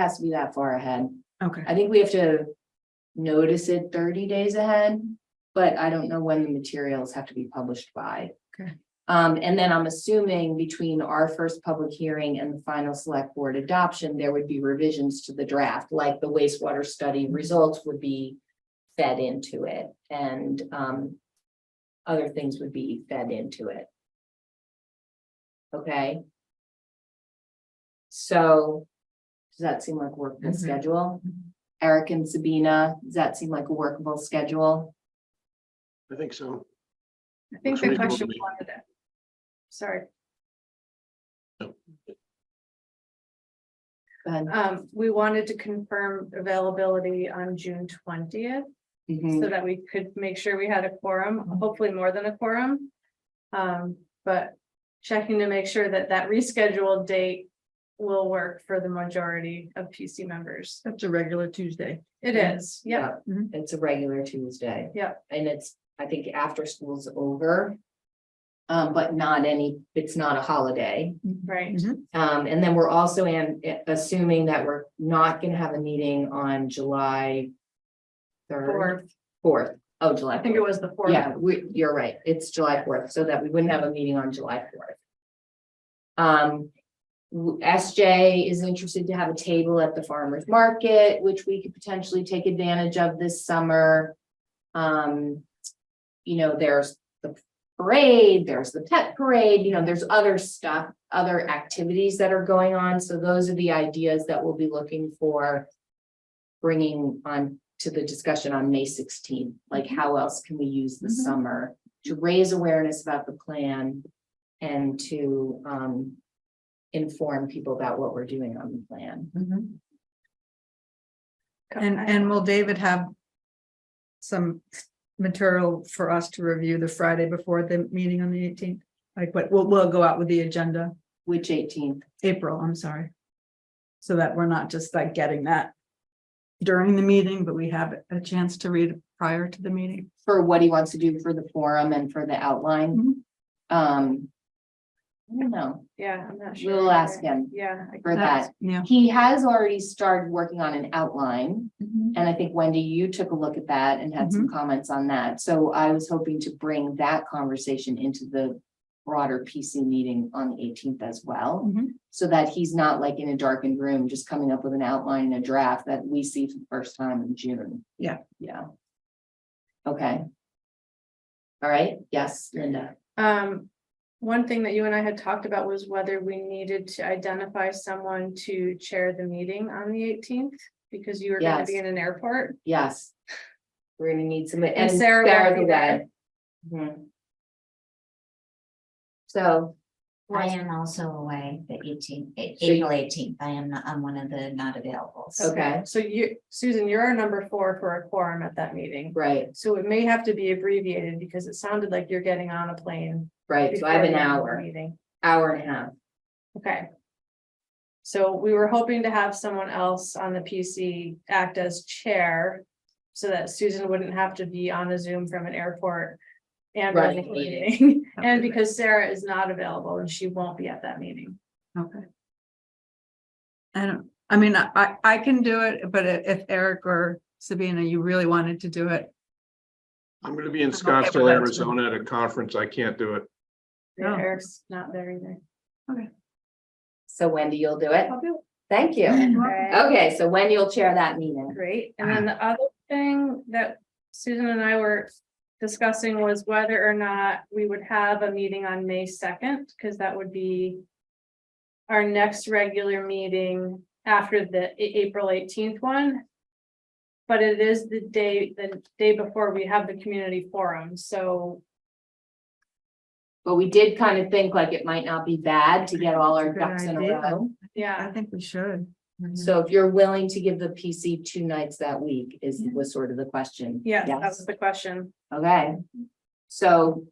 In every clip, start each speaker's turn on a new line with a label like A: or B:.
A: has to be that far ahead.
B: Okay,
A: I think we have to notice it thirty days ahead, but I don't know when the materials have to be published by.
B: Okay.
A: Um, and then I'm assuming between our first public hearing and the final select board adoption, there would be revisions to the draft, like the wastewater study results would be fed into it and, um, other things would be fed into it. Okay? So, does that seem like workable
B: Mhm.
A: schedule?
B: Mhm.
A: Eric and Sabina, does that seem like a workable schedule?
C: I think so.
D: I think
C: Looks
D: the
C: reasonable
D: question
C: to me.
D: wanted it. Sorry,
A: Go ahead.
D: um, we wanted to confirm availability on June twentieth
A: Mhm.
D: so that we could make sure we had a quorum,
B: Hmm.
D: hopefully more than a quorum. Um, but checking to make sure that that rescheduled date will work for the majority of PC members.
B: that's a regular Tuesday.
D: It
B: Yeah.
D: is, yeah, mm-hmm.
B: Mhm.
A: It's a regular Tuesday.
D: yeah.
A: and it's, I think, after school's over. Um, but not any, it's not a holiday.
D: Right,
B: Mm-hmm.
A: Um, and then we're also in, assuming that we're not gonna have a meeting on July. Third,
D: or
A: fourth, oh, July.
D: I think it
A: fourth.
D: was the fourth.
A: Yeah, we, you're right, it's July fourth, so that we wouldn't have a meeting on July fourth. Um, w- SJ is interested to have a table at the farmer's market, which we could potentially take advantage of this summer. Um, you know, there's the parade, there's the pet parade, you know, there's other stuff, other activities that are going on, so those are the ideas that we'll be looking for. Bringing on to the discussion on May sixteenth, like how else can we use the
B: Mhm.
A: summer to raise awareness about the plan? And to um inform people about what we're doing on the plan.
B: Mhm.
D: Okay.
B: And, and will David have some material for us to review the Friday before the meeting on the eighteenth? Like, what, we'll, we'll go out with the agenda,
A: Which eighteenth,
B: April, I'm sorry. So that we're not just like getting that during the meeting, but we have a chance to read it prior to the meeting.
A: for what he wants to do for the forum and for the outline.
B: Mhm.
A: Um. I don't know,
D: Yeah, I'm not sure.
A: we'll ask
D: either.
A: him
D: Yeah. I
A: for
D: can
A: that.
D: ask.
B: Yeah.
A: He has already started working on an outline. And I think Wendy, you took a look at that and had
D: Mm-hmm.
A: some comments on that. So I was hoping to bring that conversation into the broader PC meeting on the eighteenth as well.
D: Mm-hmm.
B: Mhm.
A: So that he's not like in a darkened room, just coming up with an outline and a draft that we see for the first time in June.
B: Yeah.
A: Yeah. Okay. All right, yes, Linda.
D: Um, one thing that you and I had talked about was whether we needed to identify someone to chair the meeting on the eighteenth. Because you were gonna be
A: Yes.
D: in an airport.
A: Yes. We're gonna need some.
D: And Sarah will be there.
A: Goulet. Mhm. So,
E: I
A: Right.
E: am also away the eighteenth,
A: So
E: April eighteenth. I am, not- I'm one of the not available.
A: okay,
D: So you, Susan, you're our number four for a quorum at that meeting.
A: right.
D: So it may have to be abbreviated because it sounded like you're getting on a plane.
A: Right, so I have an
D: before the end of the
A: hour,
D: Meeting,
A: hour and a half.
D: okay. So we were hoping to have someone else on the PC act as chair. So that Susan wouldn't have to be on a Zoom from an airport. And running
A: Running
D: a
A: a meeting.
D: meeting. And
B: Okay.
D: because Sarah is not available and she won't be at that meeting.
B: Okay. I don't, I mean, I- I, I can do it, but i- if Eric or Sabina, you really wanted to do it,
C: I'm gonna be in
B: okay with
C: Scottsdale,
B: that.
C: Arizona at a conference. I can't do it.
B: No.
D: Eric's not there either.
A: So Wendy, you'll do it? Thank you.
D: Okay,
A: Okay, so Wendy will chair that meeting.
D: great. And then the other thing that Susan and I were discussing was whether or not we would have a meeting on May second, because that would be our next regular meeting after the A- April eighteenth one. But it is the day, the day before we have the community forum, so
A: But we did kind of think like it might not be bad to get all our
B: Good
A: ducks in a
B: idea.
A: row.
D: yeah.
B: I think we should.
A: So if you're willing to give the PC two nights that week is, was sort of the question.
D: Yeah, that was the question.
A: Okay. So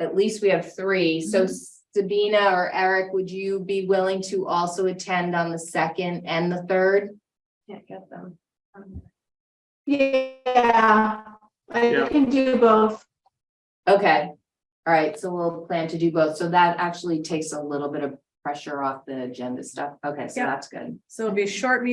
A: at least we have three. So
D: Mm-hmm.
A: Sabina or Eric, would you be willing to also attend on the second and the third?
D: Can't get them. Um,
F: Yeah, I
C: Yeah.
F: can do both.
A: Okay, all right, so we'll plan to do both, so that actually takes a little bit of pressure off the agenda stuff. Okay, so
D: Yeah.
A: that's good.
D: So it'll be a short meeting